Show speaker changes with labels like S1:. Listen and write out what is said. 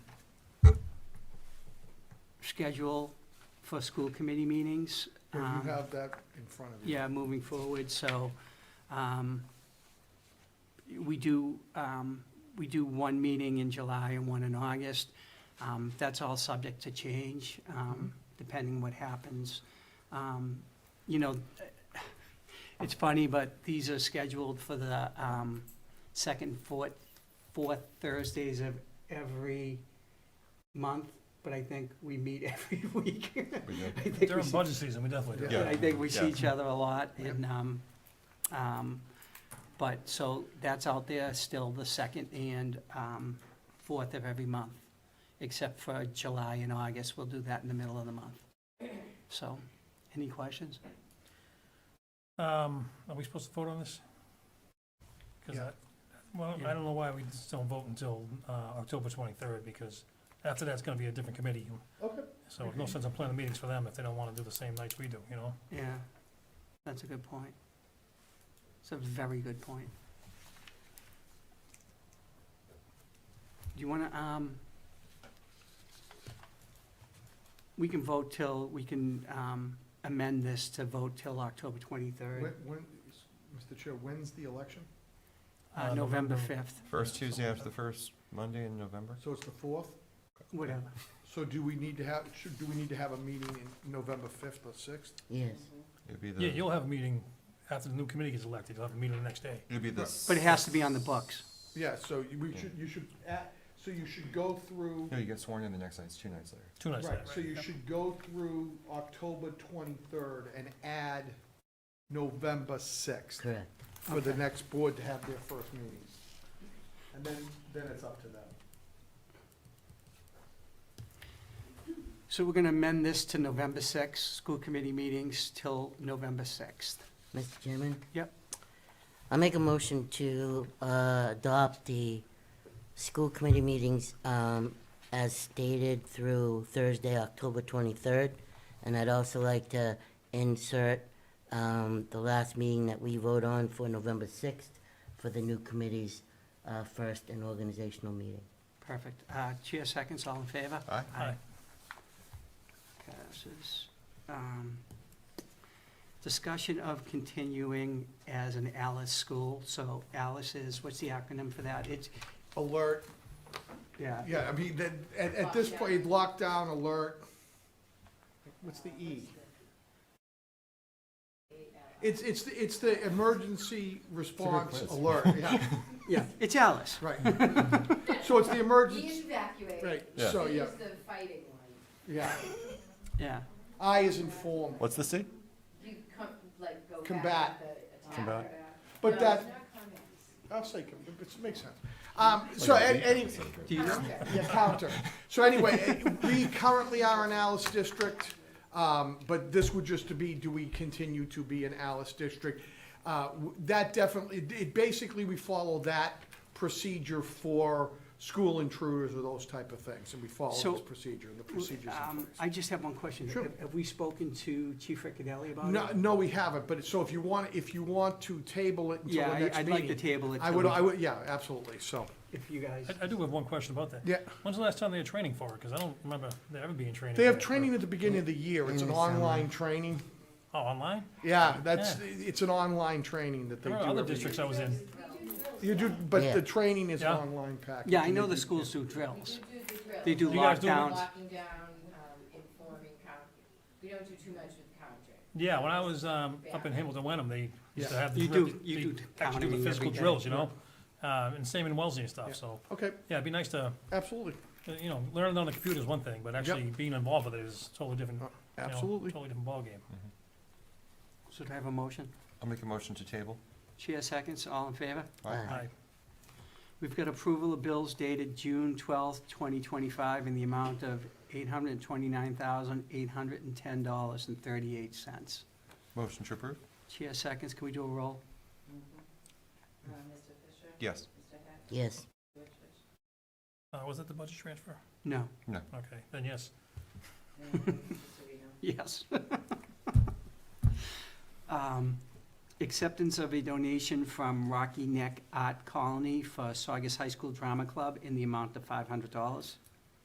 S1: schedule for school committee meetings.
S2: If
S1: um,
S2: you have that in front of you.
S1: yeah, moving forward, so, um, we do, um, we do one meeting in July and one in August. Um, that's all subject to change, um, depending what happens. Um, you know, it's funny, but these are scheduled for the, um, second, fourth, fourth Thursdays of every month, but I think we meet every week.
S3: We do.
S1: I think we
S4: During
S1: should-
S4: budget season, we definitely do.
S2: Yeah.
S1: but I think we see
S3: Yeah.
S1: each other a lot and, um, um, but, so that's out there still the second and, um, fourth of every month, except for July and August. We'll do that in the middle of the month. So, any questions?
S4: Um, are we supposed to vote on this? Cause
S2: Yeah.
S4: I, well,
S1: Yeah.
S4: I don't know why we just don't vote until, uh, October twenty-third, because after that's gonna be a different committee.
S2: Okay.
S4: So no sense in planning meetings for them if they don't wanna do the same nights we do, you know?
S1: Yeah, that's a good point. It's a very good point. Do you wanna, um, we can vote till, we can, um, amend this to vote till October
S2: When,
S1: twenty-third,
S2: when, Mr. Chair, when's the election?
S1: uh,
S4: Uh,
S1: November
S4: November-
S1: fifth,
S3: First Tuesday after the first Monday in November?
S2: So it's the fourth?
S1: whatever.
S2: So do we need to have, should, do we need to have a meeting in November fifth or sixth?
S5: Yes.
S3: It'd be the,
S4: Yeah, you'll have a meeting after the new committee gets elected, you'll have a meeting the next day.
S3: it'd be the.
S1: But it has to be on the books.
S2: Yeah, so you- we should, you should, at- so you should go through,
S3: No, you get sworn in the next night, it's two nights later.
S4: Two nights
S2: right,
S4: later.
S2: so you should go through October twenty-third and add November sixth
S5: Correct.
S2: for the
S1: Okay.
S2: next board to have their first meeting. And then, then it's up to them.
S1: So we're gonna amend this to November sixth, school committee meetings till November sixth.
S5: Mr. Chairman?
S1: Yep.
S5: I make a motion to uh, adopt the school committee meetings um, as stated through Thursday, October 23rd. And I'd also like to insert um, the last meeting that we vote on for November 6th for the new committee's uh, first and organizational meeting.
S1: Perfect. Uh, chair seconds, all in favor?
S3: Aye?
S4: Aye.
S1: Passes. Um, Discussion of continuing as an Alice school, so Alice is, what's the acronym for that? It's,
S2: Alert,
S1: yeah,
S2: Yeah, I mean, that, at, at this point, lockdown, alert. What's the E? It's, it's, the- it's the emergency response
S3: quiz.
S2: alert, yeah,
S1: yeah, it's Alice.
S2: right. So it's the emergency,
S6: evacuate.
S2: right,
S3: Yeah.
S4: Oh,
S2: so, yeah,
S6: Use the fighting one.
S2: yeah.
S1: Yeah,
S2: I is informed,
S3: What's the state?
S6: You come, like, go back.
S2: Combat.
S6: with the attack.
S3: Combat.
S6: No,
S2: but
S6: it's
S2: that,
S6: not combat.
S2: I'll say, com- it makes sense. Um, so,
S3: Like a
S2: a-
S3: beat
S2: any,
S3: or something.
S1: do you,
S2: Yeah, counter. So anyway, we currently are an Alice district, um, but this would just to be, do we continue to be an Alice district? Uh, w- That definitely, it- it, basically, we follow that procedure for school intruders or those type of things, and we follow
S1: So,
S2: this procedure, and the procedures in
S1: um,
S2: place.
S1: I just have one question.
S2: Sure.
S1: Have- Have we spoken to Chief Riccadelli about it?
S2: No, no, we haven't, but, it- so if you want, if you want to table it until
S1: Yeah,
S2: the
S1: I-
S2: next
S1: I'd like to
S2: meeting,
S1: table it
S2: I would,
S1: till-
S2: I would, yeah, absolutely, so,
S1: if you guys,
S4: I, I do have one question about that.
S2: yeah.
S4: When's the last time they had training for it? Cause I don't remember there ever being training.
S2: They have
S4: for it.
S2: training at the beginning of the year, it's an
S5: In the summer.
S2: online training.
S4: Oh, online?
S2: Yeah, that's, it's an online training that they
S4: There
S2: do
S4: were other
S2: every
S4: districts I was in.
S2: year. You do, but
S5: Yeah.
S2: the training is an
S4: Yeah.
S2: online package.
S1: yeah, I know
S2: You
S1: the
S2: do-
S1: schools do
S6: We
S1: drills.
S6: do do the drills.
S1: They do
S4: You guys do-
S1: lockdowns.
S6: Locking down, um, informing, count, we don't do too much with counting.
S4: Yeah, when I was, um, up in Hamilton, Wenham, they used to
S2: Yeah.
S4: have the.
S1: You
S4: drill-
S1: do- you
S4: they
S1: do
S4: Actually do
S1: counting
S4: the physical
S1: every day.
S4: drills, you know, uh, and same in Wellesley and
S2: Yeah.
S4: stuff, so,
S2: Okay,
S4: yeah, it'd be nice to,
S2: absolutely,
S4: uh, you know, learning on the computer is one thing, but actually being involved with it is totally different,
S1: Oh,
S4: you know,
S2: absolutely.
S4: totally different ballgame.
S1: So do I have a motion?
S3: Mm-hmm. I'll make a motion to table.
S1: Chair seconds, all in favor?
S5: Aye.
S4: Aye.
S1: We've got approval of bills dated June twelfth, twenty twenty-five, in the amount of eight hundred and twenty-nine thousand, eight hundred and ten dollars and thirty-eight cents.
S3: Motion to approve?
S1: Chair seconds, can we do a roll?
S6: Uh, Mr. Fisher?
S3: Yes.
S6: Mr. Hack?
S5: Yes.
S6: Richards?
S4: Uh, was that the budget transfer?
S1: No,
S4: Okay, then yes.
S6: And Mr. Vino?
S1: yes. Um, Acceptance of a donation from Rocky Neck Art Colony for Saugus High School Drama Club in the amount of five hundred dollars.